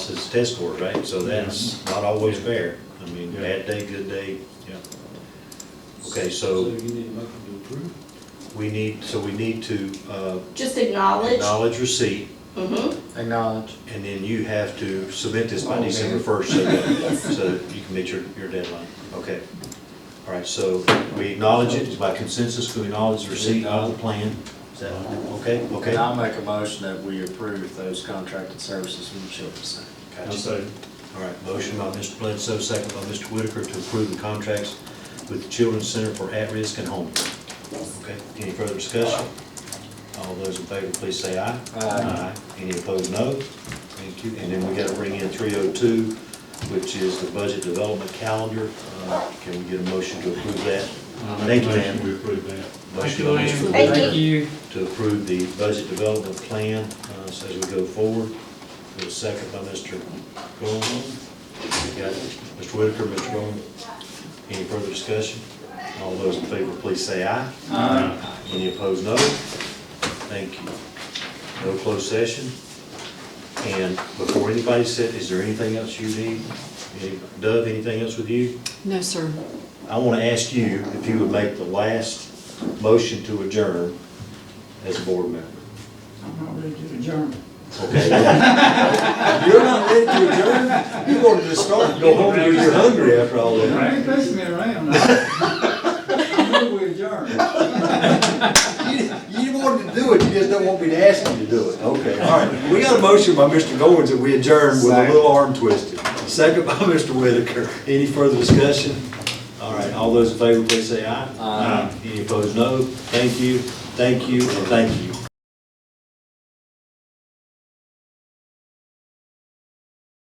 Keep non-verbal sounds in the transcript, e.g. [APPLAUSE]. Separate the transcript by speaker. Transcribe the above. Speaker 1: is test scores, right? So that's not always fair. I mean, bad day, good day, yeah. Okay,
Speaker 2: So
Speaker 1: so
Speaker 2: you need a motion to approve?
Speaker 1: we need, so we need to uh,
Speaker 3: Just acknowledge.
Speaker 1: acknowledge receipt,
Speaker 3: Mm-hmm,
Speaker 4: Acknowledge.
Speaker 1: and then you have to submit this by
Speaker 4: Oh,
Speaker 1: December
Speaker 4: man.
Speaker 1: first, so that, so that you can meet your, your deadline. Okay. All right, so we acknowledge it, by consensus, we acknowledge receipt of the plan. Is that, okay, okay?
Speaker 4: And I'll make a motion that we approve those contracted services from the children's center.
Speaker 1: Gotcha. All right, motion by Mr. Bledsoe, second by Mr. Whitaker to approve the contracts with the Children's Center for At-Risk and Homeless. Okay, any further discussion? All those in favor, please say aye.
Speaker 4: Aye.
Speaker 1: Any opposed, no. Thank you. And then we gotta bring in three oh two, which is the budget development calendar. Uh, Can we get a motion to approve that? Thank you, ma'am.
Speaker 2: We approve that.
Speaker 1: Motion by Mr.
Speaker 3: Thank you.
Speaker 1: Whitaker
Speaker 5: you.
Speaker 1: to approve the budget development plan uh, so as we go forward. With a second by Mr. Gorman. We got Mr. Whitaker, Mr. Gorman. Any further discussion? All those in favor, please say aye. Aye. Any opposed, no. Thank you. No closed session. And before anybody said, is there anything else you need? Any- Dove, anything else with you?
Speaker 6: No, sir.
Speaker 1: I want to ask you if you would make the last motion to adjourn as a board member.
Speaker 7: I'm not ready to adjourn.
Speaker 1: [LAUGHS] You're not ready to adjourn? You wanted to start, go home, and you're hungry after all that.
Speaker 7: I ain't pushing me around. I [LAUGHS] I knew we adjourned.
Speaker 1: You wanted to do it, you just don't want me to ask you to do it. Okay, all right. We got a motion by Mr. Goins that we adjourn with a little arm twisted. Second by [LAUGHS] Mr. Whitaker. Any further discussion? All right, all those in favor, please say aye. Aye. Any opposed, no. Thank you, thank you, and thank you.